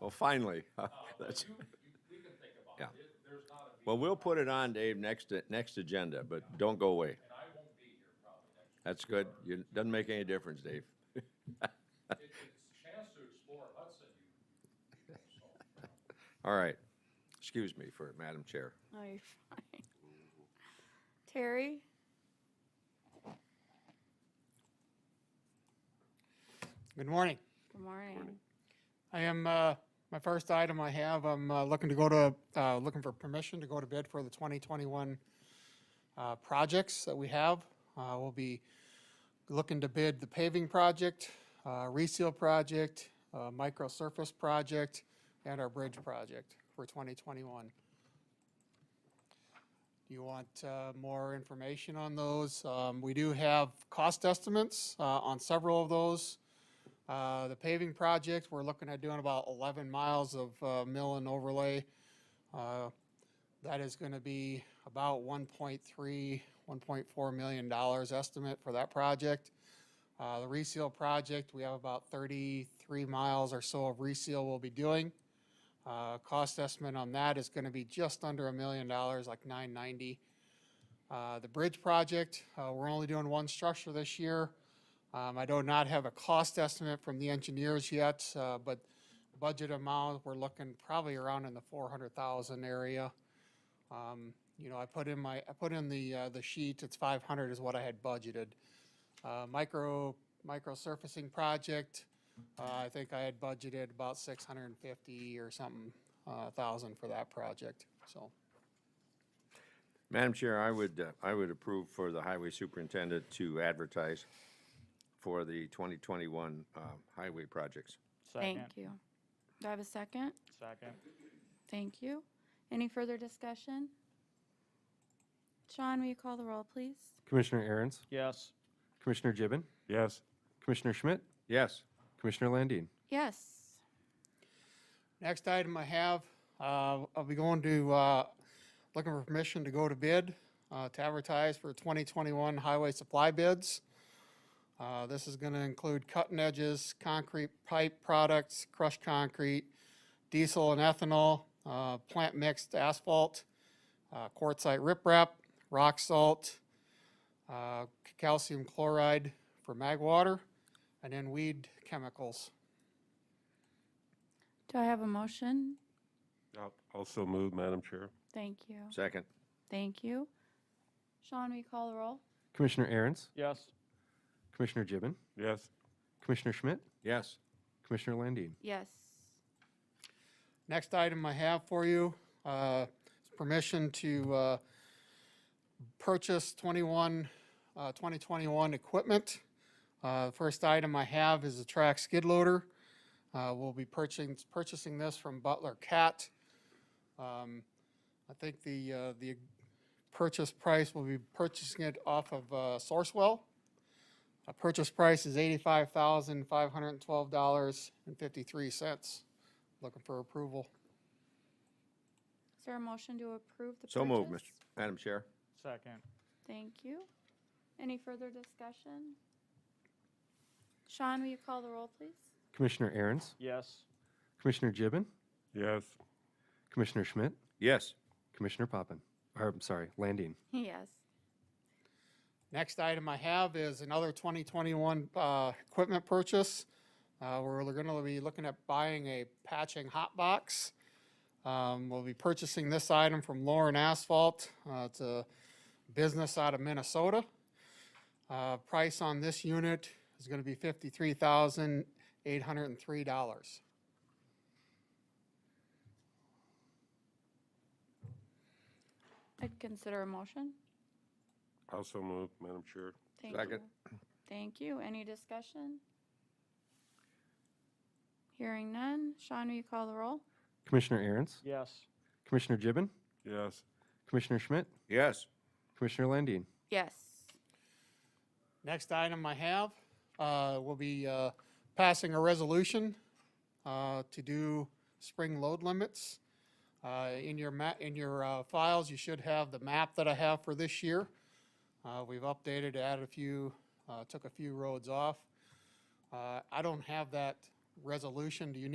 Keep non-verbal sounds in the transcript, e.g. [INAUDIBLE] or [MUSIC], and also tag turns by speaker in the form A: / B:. A: Well, finally. [LAUGHS] That's- Yeah. Well, we'll put it on, Dave, next, next agenda, but don't go away. That's good. You, doesn't make any difference, Dave. [LAUGHS] [LAUGHS] All right. Excuse me for, Madam Chair.
B: [LAUGHS] No, you're fine. Terry?
C: Good morning.
B: Good morning.
C: I am, uh, my first item I have, I'm uh, looking to go to, uh, looking for permission to go to bid for the 2021 uh, projects that we have. Uh, We'll be looking to bid the paving project, uh, reseal project, uh, micro surface project, and our bridge project for 2021. Do you want uh, more information on those? Um, We do have cost estimates uh, on several of those. Uh, The paving project, we're looking at doing about 11 miles of uh, mill and overlay. Uh, That is going to be about 1.3, 1.4 million dollars estimate for that project. Uh, The reseal project, we have about 33 miles or so of reseal we'll be doing. Uh, Cost estimate on that is going to be just under a million dollars, like 990. Uh, The bridge project, uh, we're only doing one structure this year. Um, I do not have a cost estimate from the engineers yet, uh, but budget amount, we're looking probably around in the four hundred thousand area. Um, you know, I put in my, I put in the, uh, the sheet, it's five hundred is what I had budgeted. Uh, micro, micro surfacing project, uh, I think I had budgeted about six hundred and fifty or something, uh, thousand for that project, so.
A: Madam Chair, I would, uh, I would approve for the highway superintendent to advertise for the 2021 um, highway projects.
B: Thank
D: Second.
B: you. Do I have a second?
D: Second.
B: Thank you. Any further discussion? Sean, will you call the roll, please?
E: Commissioner Aaron's,
D: Yes.
E: Commissioner Gibbon,
F: Yes.
E: Commissioner Schmidt,
A: Yes,
E: Commissioner Landine.
B: Yes.
C: Next item I have, uh, I'll be going to, uh, looking for permission to go to bid, uh, to advertise for 2021 highway supply bids. Uh, This is going to include cutting edges, concrete pipe products, crushed concrete, diesel and ethanol, uh, plant mixed asphalt, uh, quartzite riprap, rock salt, uh, calcium chloride for mag water, and then weed chemicals.
B: Do I have a motion?
F: I'll- Also move, Madam Chair.
B: Thank you.
A: second.
B: Thank you. Sean, will you call the roll?
E: Commissioner Aaron's,
D: Yes.
E: Commissioner Gibbon,
F: Yes.
E: Commissioner Schmidt,
A: Yes,
E: Commissioner Landine.
B: Yes.
C: Next item I have for you, uh, is permission to, uh, purchase 21, uh, 2021 equipment. Uh, the first item I have is a track skid loader. Uh, we'll be purchasing, purchasing this from Butler Cat. Um, I think the, uh, the purchase price, we'll be purchasing it off of, uh, Sourcewell. Uh purchase price is eighty-five thousand, five hundred and twelve dollars and fifty-three cents. Looking for approval.
B: Is there a motion to approve the purchase?
A: so move, Mr. Madam Chair.
D: Second.
B: Thank you. Any further discussion? Sean, will you call the roll, please?
E: Commissioner Aaron's,
D: Yes.
E: Commissioner Gibbon,
F: Yes.
E: Commissioner Schmidt,
A: Yes,
E: Commissioner Poppin, or I'm sorry, Landine.
B: Yes.
C: Next item I have is another 2021 uh, equipment purchase. Uh, We're going to be looking at buying a patching hot box. Um, We'll be purchasing this item from Lauren Asphalt. Uh, It's a business out of Minnesota. Uh, Price on this unit is going to be $53,803.
B: I'd consider a motion.
F: Also move, Madam Chair.
B: Thank you.
A: Second.
B: Thank you. Any discussion? Hearing none. Sean, will you call the roll?
E: Commissioner Aaron's,
D: Yes.
E: Commissioner Gibbon,
F: Yes.
E: Commissioner Schmidt,
A: yes,
E: Commissioner Landine.
B: Yes.
C: Next item I have, uh, will be, uh, passing a resolution, uh, to do spring load limits. Uh, in your ma, in your, uh, files, you should have the map that I have for this year. Uh, we've updated, added a few, uh, took a few roads off. Uh, I don't have that resolution. Do you need?